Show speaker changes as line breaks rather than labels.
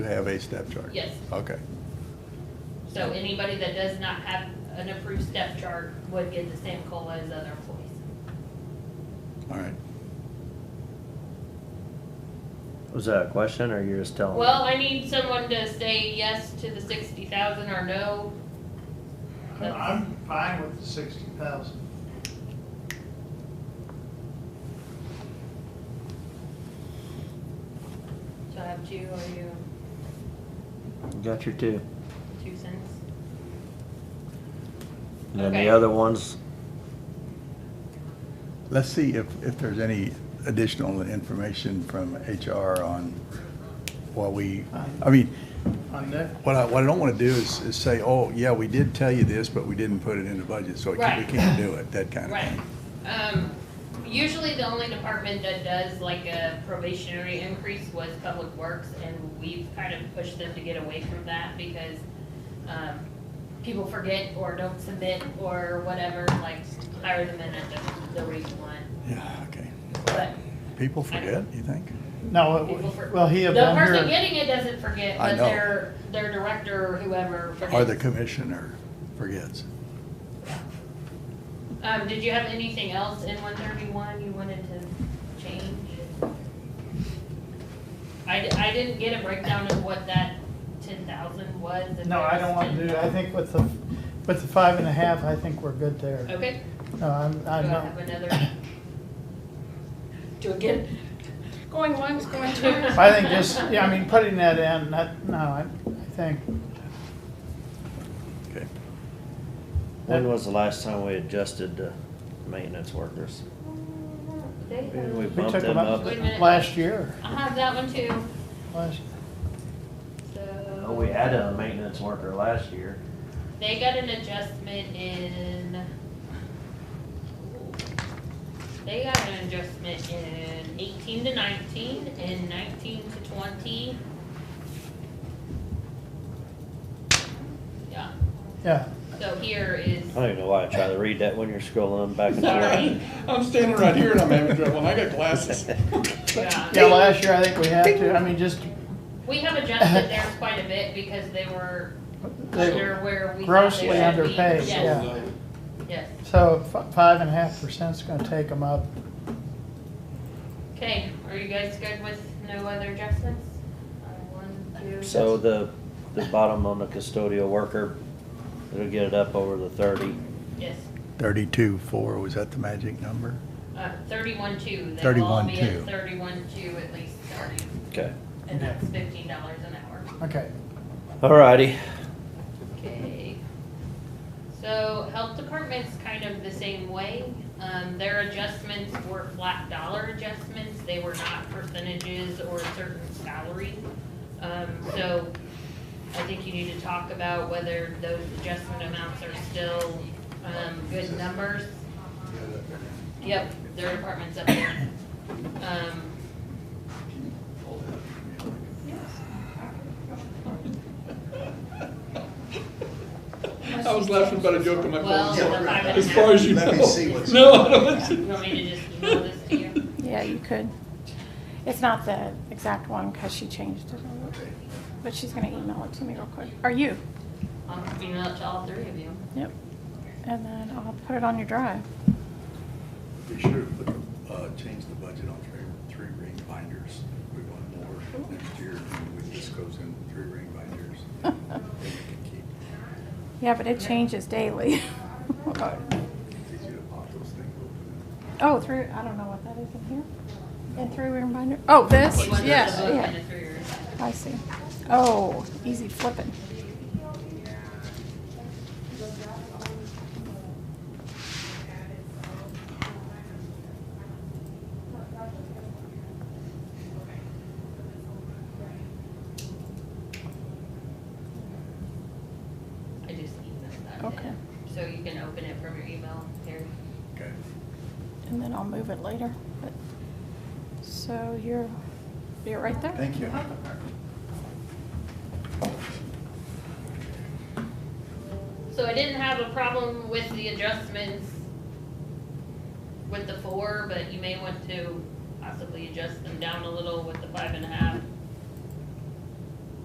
You have a step chart?
Yes.
Okay.
So anybody that does not have an approved step chart would get the same COLA as other employees.
All right.
Was that a question or you're just telling?
Well, I need someone to say yes to the sixty thousand or no.
I'm fine with the sixty thousand.
So I have two, or you,
Got your two.
two cents?
And then
Okay.
the other ones,
Let's see if, if there's any additional information from HR on what we, I mean,
On that,
what I, what I don't want to do is, is say, oh, yeah, we did tell you this, but we didn't put it in the budget, so we can't- we
Right.
can't do it, that kind of
Right.
thing.
Um, usually the only department that does like a probationary increase was Public Works, and we've kind of pushed them to get away from that because, um, people forget or don't submit or whatever, like hire them in at the, the rate you want,
Yeah, okay.
but
People forget, you think?
no,
people
it-
forget.
well, he had
The
done
person
here,
getting it doesn't forget,
I
but
know.
their, their director or whoever forgets.
Or the commissioner forgets.
Um, did you have anything else in one thirty-one you wanted to change? I, di- I didn't get a breakdown of what that ten thousand was. if
no,
it
I
was
don't want to
10,000.
do, I think with the, with the five and a half, I think we're good there.
Okay,
No, I'm,
do I
I'm
have
not.
another? Do again?
Going once, going twice.
I think just, yeah, I mean, putting that in, that, no, I, I think,
Okay.
when was the last time we adjusted the maintenance workers?
They
Maybe we
have,
we
bumped
took
them
them up
up.
Wait a minute.
last year,
uh-huh. I have that one too,
last,
so.
Oh, we added a maintenance worker last year.
They got an adjustment in. They got an adjustment in eighteen to nineteen and nineteen to twenty. Yeah,
yeah.
so here is,
I don't even know why I try to read that when you're scrolling back and
Sorry.
forth.
I'm standing right here and I'm having trouble, and I got glasses.
yeah,
Yeah, last year, I think we had to, I mean, just,
we have adjusted theirs quite a bit because they were
they-
under where we thought they
grossly
should be.
underpaid,
Yes,
yeah.
yes,
So fi- five and a half percent's gonna take them up.
okay, are you guys good with no other adjustments? Uh, One, two.
So the, the bottom on the custodial worker, it'll get it up over the thirty.
Yes.
Thirty-two, four, was that the magic number?
Uh, thirty-one two, they'll all be at
31.2.
thirty-one two at least starting,
Okay.
and that's fifteen dollars an hour.
Okay,
Alrighty.
Okay. So health department's kind of the same way, um, their adjustments were flat dollar adjustments, they were not percentages or certain salary. Um, so I think you need to talk about whether those adjustment amounts are still, um, good numbers. Yep, their department's up there. Um,
I was laughing about a joke in my
Well, the
phone.
five and a
As far
half,
as you know.
Let me see what's-
No, I don't want
you
to-
want me to just email this to you?
Yeah, you could. It's not the exact one because she changed it, but she's gonna email it to me real quick. Or you.
I'll email it to all three of you.
Yep. And then I'll put it on your drive.
Be sure to put, the- uh, change the budget on three, three ring binders. We want more next year, and this goes in three ring binders. Then we can keep,
Yeah, but it changes daily.
it's easy to pop those things open.
Oh, through, I don't know what that is in here. And through your binder. Oh, this?
He wants
Yes,
the book and
yeah.
the three rings.
I see. Oh, easy flipping.
I just emailed that. in.
Okay.
So you can open it from your email here.
Okay.
And then I'll move it later. But So you're, you're right there.
Thank you.
So I didn't have a problem with the adjustments with the four, but you may want to possibly adjust them down a little with the five and a half.